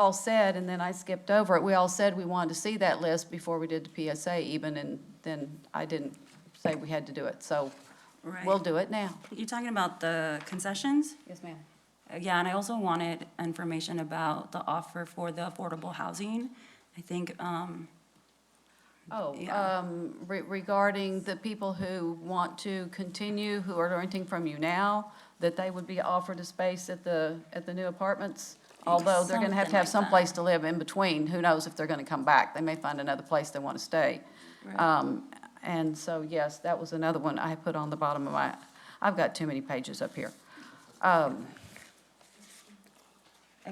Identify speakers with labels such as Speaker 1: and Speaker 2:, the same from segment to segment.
Speaker 1: all said, and then I skipped over it, we all said we wanted to see that list before we did the PSA even, and then I didn't say we had to do it, so we'll
Speaker 2: Right.
Speaker 1: do it now.
Speaker 2: You talking about the concessions?
Speaker 1: Yes, ma'am.
Speaker 2: Uh, Yeah, and I also wanted information about the offer for the affordable housing. I think, um,
Speaker 1: Oh,
Speaker 2: Yeah.
Speaker 1: um, re- regarding the people who want to continue, who are renting from you now, that they would be offered a space at the, at the new apartments? Although they're gonna have to have
Speaker 2: Something
Speaker 1: some
Speaker 2: like that.
Speaker 1: place to live in between, who knows if they're gonna come back, they may find another place they wanna stay.
Speaker 2: Right.
Speaker 1: Um, and so, yes, that was another one I put on the bottom of my, I've got too many pages up here. Um,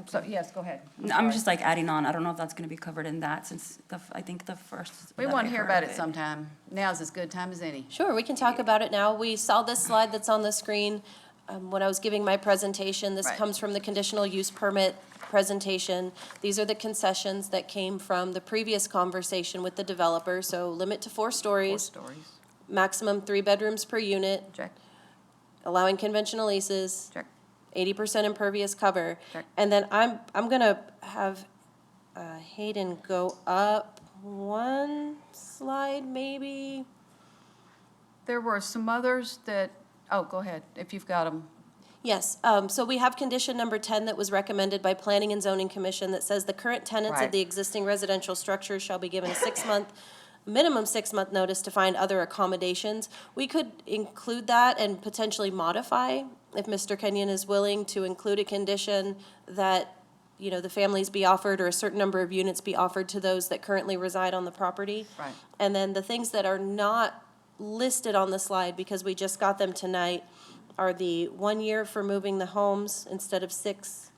Speaker 1: so, yes, go ahead.
Speaker 2: no, I'm
Speaker 1: sorry.
Speaker 2: just like adding on, I don't know if that's gonna be covered in that since the, f- I think the first.
Speaker 1: We
Speaker 2: that I
Speaker 1: wanna hear
Speaker 2: heard
Speaker 1: about
Speaker 2: of
Speaker 1: it sometime, now's as good time as any.
Speaker 3: Sure, we can talk about it now. We saw this slide that's on the screen um, when I was giving my presentation. This
Speaker 1: Right.
Speaker 3: comes from the conditional use permit presentation. These are the concessions that came from the previous conversation with the developer, so limit to four
Speaker 1: Four
Speaker 3: stories,
Speaker 1: stories,
Speaker 3: maximum three bedrooms per unit,
Speaker 1: check,
Speaker 3: allowing conventional leases,
Speaker 1: check.
Speaker 3: eighty percent impervious cover.
Speaker 1: Correct.
Speaker 3: And then I'm, I'm gonna have uh, Hayden go up one slide, maybe?
Speaker 1: There were some others that, oh, go ahead, if you've got them.
Speaker 3: Yes, um, so we have condition number ten that was recommended by Planning and Zoning Commission that says the current tenants
Speaker 1: Right.
Speaker 3: of the existing residential structure shall be given a six-month, minimum six-month notice to find other accommodations. We could include that and potentially modify, if Mr. Kenyon is willing, to include a condition that, you know, the families be offered or a certain number of units be offered to those that currently reside on the property.
Speaker 1: Right.
Speaker 3: And then the things that are not listed on the slide, because we just got them tonight, are the one year for moving the homes instead of six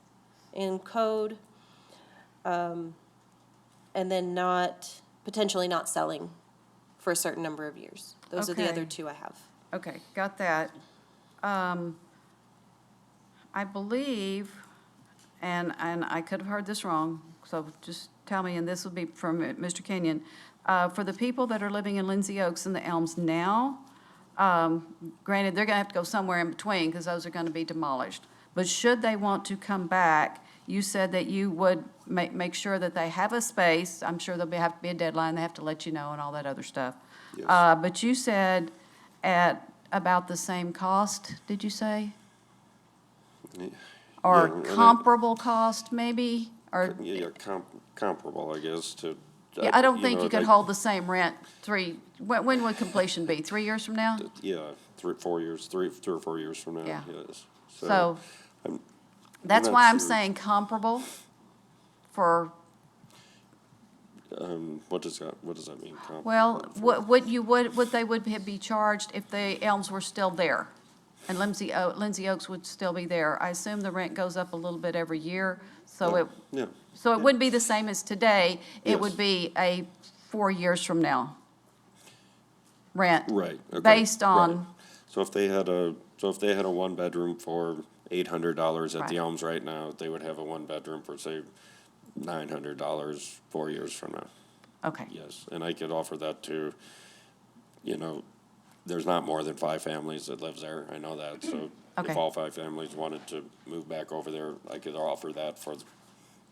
Speaker 3: in code. um, And then not, potentially not selling for a certain number of years. Those are the
Speaker 1: Okay.
Speaker 3: other two I have.
Speaker 1: Okay, got that. Um, I believe, and, and I could have heard this wrong, so just tell me, and this would be from Mr. Kenyon. Uh, For the people that are living in Lindsay Oaks and the Elms now, um, granted, they're going to have to go somewhere in between because those are going to be demolished. But should they want to come back, you said that you would make, make sure that they have a space. I'm sure there'll be, have to be a deadline, they have to let you know and all that other stuff.
Speaker 4: Yes.
Speaker 1: Uh, But you said at about the same cost, did you say?
Speaker 4: Yeah,
Speaker 1: Or
Speaker 4: and it-
Speaker 1: comparable cost, maybe? Or,
Speaker 4: Yeah, yeah, com- comparable, I guess, to.
Speaker 1: Yeah, I don't think
Speaker 4: know,
Speaker 1: you could
Speaker 4: like-
Speaker 1: hold the same rent three, when, when would completion be? Three years from now?
Speaker 4: Yeah, three, four years, three, three or four years from now,
Speaker 1: Yeah.
Speaker 4: yes.
Speaker 1: So,
Speaker 4: I'm-
Speaker 1: that's
Speaker 4: not
Speaker 1: why I'm
Speaker 4: sure.
Speaker 1: saying comparable for,
Speaker 4: Um, what does that, what does that mean? comparable
Speaker 1: well,
Speaker 4: for-
Speaker 1: what, what you would, what they would be charged if the Elms were still there. And Lindsay, O- Lindsay Oaks would still be there. I assume the rent goes up a little bit every year, so
Speaker 4: Yeah,
Speaker 1: it,
Speaker 4: Yeah,
Speaker 1: so it wouldn't be the same as today. It
Speaker 4: Yes.
Speaker 1: would be a four years from now rent.
Speaker 4: right, okay.
Speaker 1: Based on,
Speaker 4: right. So if they had a, so if they had a one-bedroom for eight hundred dollars at
Speaker 1: Right.
Speaker 4: the Elms right now, they would have a one-bedroom for, say, nine hundred dollars four years from now.
Speaker 1: okay.
Speaker 4: Yes, and I could offer that to, you know, there's not more than five families that lives there, I know that, so
Speaker 1: Okay.
Speaker 4: if all five families wanted to move back over there, I could offer that for,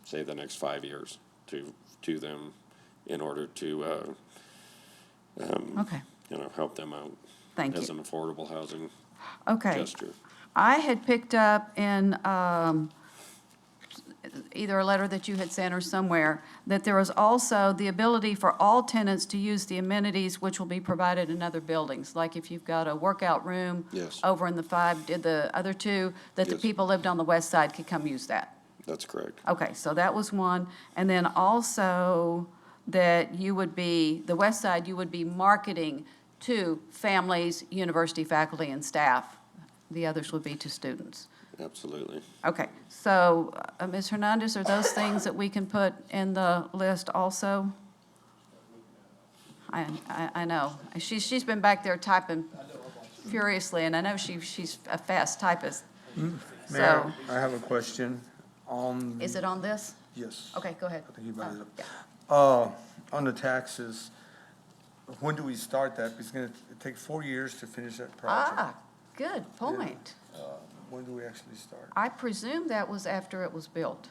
Speaker 4: say, the next five years to, to them in order to, uh,
Speaker 1: Okay,
Speaker 4: you know, help them out.
Speaker 1: Thank
Speaker 4: As
Speaker 1: you.
Speaker 4: an affordable housing
Speaker 1: okay.
Speaker 4: gesture.
Speaker 1: I had picked up in um, either a letter that you had sent or somewhere, that there is also the ability for all tenants to use the amenities which will be provided in other buildings. Like if you've got a workout room.
Speaker 4: Yes.
Speaker 1: Over in the five, did the other two, that the
Speaker 4: Yes.
Speaker 1: people lived on the west side could come use that.
Speaker 4: That's correct.
Speaker 1: Okay, so that was one. And then also that you would be, the west side, you would be marketing to families, university faculty and staff. The others would be to students.
Speaker 4: Absolutely.
Speaker 1: Okay, so uh, Ms. Hernandez, are those things that we can put in the list also? I, I, I know. She's, she's been back there typing furiously and I know she, she's a fast typist. So
Speaker 5: Mayor, I have a question on,
Speaker 1: is it on this?
Speaker 5: yes.
Speaker 1: Okay, go ahead. Oh,
Speaker 5: I think you brought it up.
Speaker 1: Yeah.
Speaker 5: Uh, on the taxes, when do we start that? It's gonna take four years to finish that project. Uh,
Speaker 1: Ah, good point.
Speaker 5: When do we actually start?
Speaker 1: I presume that was after it was built.